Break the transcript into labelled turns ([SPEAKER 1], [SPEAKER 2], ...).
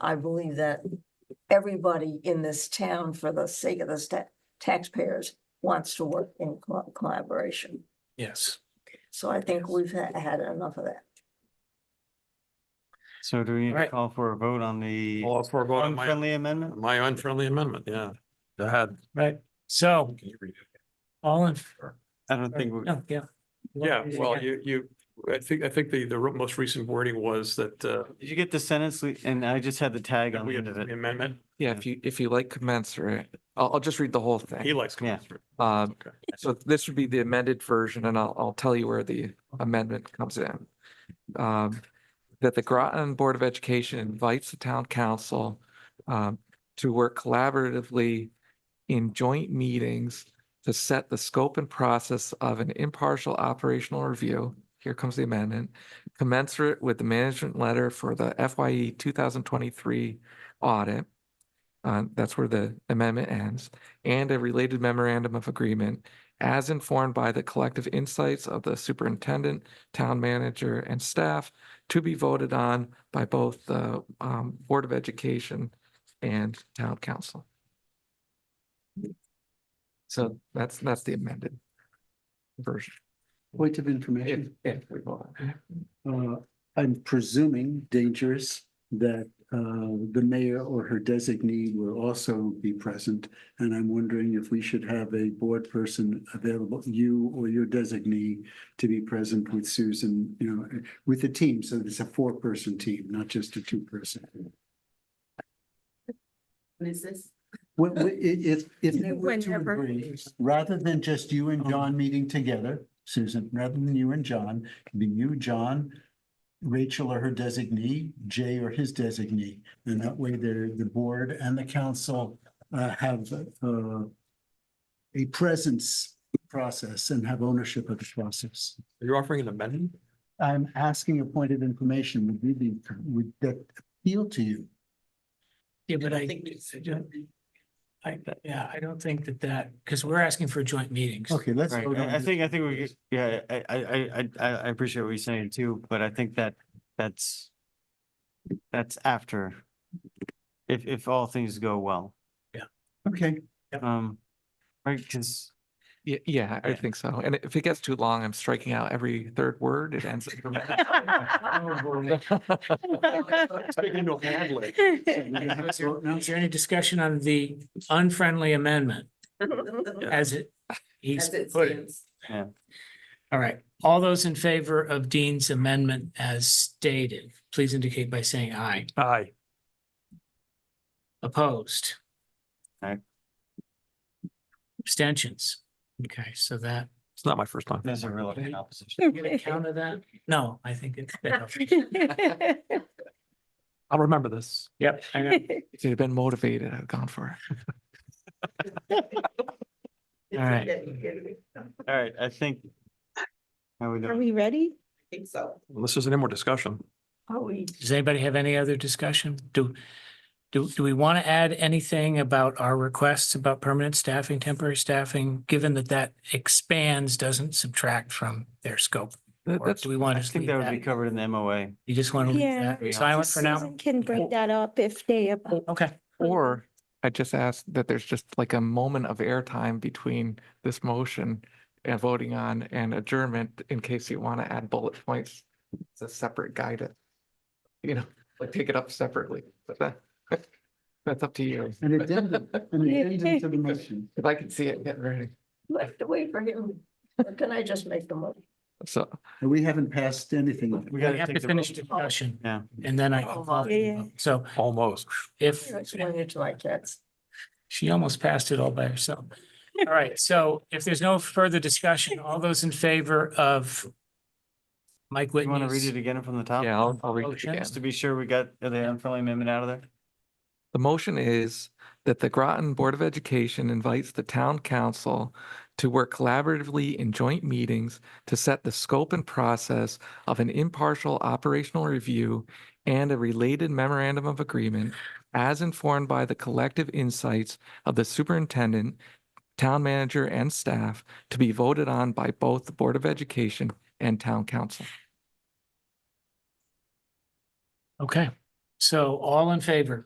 [SPEAKER 1] I believe that everybody in this town, for the sake of the sta- taxpayers, wants to work in co- collaboration.
[SPEAKER 2] Yes.
[SPEAKER 1] So I think we've ha- had enough of that.
[SPEAKER 3] So do we need to
[SPEAKER 2] Alright.
[SPEAKER 3] call for a vote on the
[SPEAKER 2] All for vote on my,
[SPEAKER 3] unfriendly amendment?
[SPEAKER 2] my unfriendly amendment, yeah. Go ahead.
[SPEAKER 4] Right, so all in, f-
[SPEAKER 3] I don't think, we-
[SPEAKER 4] no, yeah.
[SPEAKER 2] Yeah, well, you, you, I think, I think the, the most recent wording was that, uh,
[SPEAKER 3] did you get the sentence? Lee? And I just had the tag
[SPEAKER 2] that
[SPEAKER 3] on
[SPEAKER 2] we
[SPEAKER 3] the
[SPEAKER 2] had
[SPEAKER 3] end of
[SPEAKER 2] the
[SPEAKER 3] it.
[SPEAKER 2] amendment,
[SPEAKER 5] Yeah, if you, if you like commensurate, I'll, I'll just read the whole
[SPEAKER 2] he
[SPEAKER 5] thing.
[SPEAKER 2] likes.
[SPEAKER 3] Yeah.
[SPEAKER 5] Um,
[SPEAKER 2] Okay.
[SPEAKER 5] so this would be the amended version and I'll, I'll tell you where the amendment comes in. Um, that the Groton Board of Education invites the town council um, to work collaboratively in joint meetings to set the scope and process of an impartial operational review. Here comes the amendment, commensurate with the management letter for the FYE two thousand twenty-three audit. Uh, that's where the amendment ends, and a related memorandum of agreement as informed by the collective insights of the superintendent, town manager, and staff to be voted on by both the um, Board of Education and Town Council. So that's, that's the amended version.
[SPEAKER 6] Point of
[SPEAKER 5] If,
[SPEAKER 6] information,
[SPEAKER 5] if we vote.
[SPEAKER 6] uh, I'm presuming dangerous that, uh, the mayor or her designee will also be present. And I'm wondering if we should have a board person available, you or your designee to be present with Susan, you know, with the team. So there's a four-person team, not just a two-person.
[SPEAKER 7] Is this?
[SPEAKER 6] Well, we- i- if, if there were to
[SPEAKER 1] Whenever.
[SPEAKER 6] agree, rather than just you and John meeting together, Susan, rather than you and John, it'd be you, John, Rachel or her designee, Jay or his designee, and that way the, the board and the council uh, have uh, a presence process and have ownership of the process.
[SPEAKER 2] You're offering an amendment?
[SPEAKER 6] I'm asking a point of information, would you be, would that appeal to you?
[SPEAKER 4] Yeah, but I,
[SPEAKER 7] think
[SPEAKER 4] I don't- I, yeah, I don't think that that, because we're asking for joint meetings.
[SPEAKER 6] Okay, let's.
[SPEAKER 3] Right,
[SPEAKER 6] vote on
[SPEAKER 3] I I
[SPEAKER 6] this.
[SPEAKER 3] think, I think we, get- yeah, I, I, I, I, I appreciate what you're saying too, but I think that, that's, that's after, if, if all things go well.
[SPEAKER 6] Okay.
[SPEAKER 3] Um, right, because,
[SPEAKER 5] Yeah, yeah, I
[SPEAKER 3] Yeah.
[SPEAKER 5] think so. And if it gets too long, I'm striking out every third word. It ends.
[SPEAKER 2] Speaking to a hand lick.
[SPEAKER 4] Is there is there any discussion on the unfriendly amendment as it, he's
[SPEAKER 7] As it
[SPEAKER 4] put it?
[SPEAKER 7] stands.
[SPEAKER 4] All right, all those in favor of Dean's amendment as stated, please indicate by saying aye.
[SPEAKER 2] Aye.
[SPEAKER 4] Opposed?
[SPEAKER 3] Aye.
[SPEAKER 4] Abstentions? Okay, so that,
[SPEAKER 2] It's not my first time.
[SPEAKER 3] there's a real opposition.
[SPEAKER 4] you gonna counter that? No, I think it's.
[SPEAKER 2] I'll remember this.
[SPEAKER 4] Yep. I know.
[SPEAKER 5] If you'd been motivated, I've gone for it.
[SPEAKER 4] All right.
[SPEAKER 7] I
[SPEAKER 3] All right, I think. How we
[SPEAKER 8] Are
[SPEAKER 3] doing?
[SPEAKER 8] we ready?
[SPEAKER 7] think so.
[SPEAKER 2] This isn't any more discussion.
[SPEAKER 1] Oh, we,
[SPEAKER 4] Does anybody have any other discussion? Do, do, do we want to add anything about our requests about permanent staffing, temporary staffing, given that that expands, doesn't subtract from their scope?
[SPEAKER 5] That-
[SPEAKER 4] Or
[SPEAKER 5] That's,
[SPEAKER 4] do we want
[SPEAKER 3] I
[SPEAKER 4] to just
[SPEAKER 3] think
[SPEAKER 4] leave
[SPEAKER 3] that would be
[SPEAKER 4] that?
[SPEAKER 3] covered in the MOA.
[SPEAKER 4] You just want to
[SPEAKER 8] Yeah.
[SPEAKER 4] leave that silent for now?
[SPEAKER 8] Susan Can bring that up if they.
[SPEAKER 4] Okay.
[SPEAKER 5] or I just asked that there's just like a moment of airtime between this motion and voting on and adjournment in case you want to add bullet points. It's a separate guidance. You know, like take it up separately, but that, that's up to you.
[SPEAKER 6] An addendum, an addendum to the motion.
[SPEAKER 5] If I can see it getting ready.
[SPEAKER 1] we have to wait for him. Or Can I just make the motion?
[SPEAKER 5] So
[SPEAKER 6] And We haven't passed anything. yet.
[SPEAKER 3] We
[SPEAKER 4] We
[SPEAKER 3] gotta
[SPEAKER 4] have to
[SPEAKER 3] take the.
[SPEAKER 4] finish
[SPEAKER 3] vote.
[SPEAKER 4] discussion.
[SPEAKER 3] Yeah.
[SPEAKER 4] And then I. can call it.
[SPEAKER 1] Yeah,
[SPEAKER 8] yeah.
[SPEAKER 4] So
[SPEAKER 2] Almost.
[SPEAKER 4] if,
[SPEAKER 1] You're explaining it to my kids.
[SPEAKER 4] she almost passed it all by herself. All right, so if there's no further discussion, all those in favor of Mike
[SPEAKER 3] You wanna read
[SPEAKER 4] Whitney's
[SPEAKER 3] it again from the top?
[SPEAKER 5] Yeah, I'll, I'll read it
[SPEAKER 4] Motion.
[SPEAKER 5] again.
[SPEAKER 3] Just to be sure we got the unfriendly amendment out of there.
[SPEAKER 5] The motion is that the Groton Board of Education invites the town council to work collaboratively in joint meetings to set the scope and process of an impartial operational review and a related memorandum of agreement as informed by the collective insights of the superintendent, town manager, and staff to be voted on by both the Board of Education and town council.
[SPEAKER 4] Okay, So all in favor?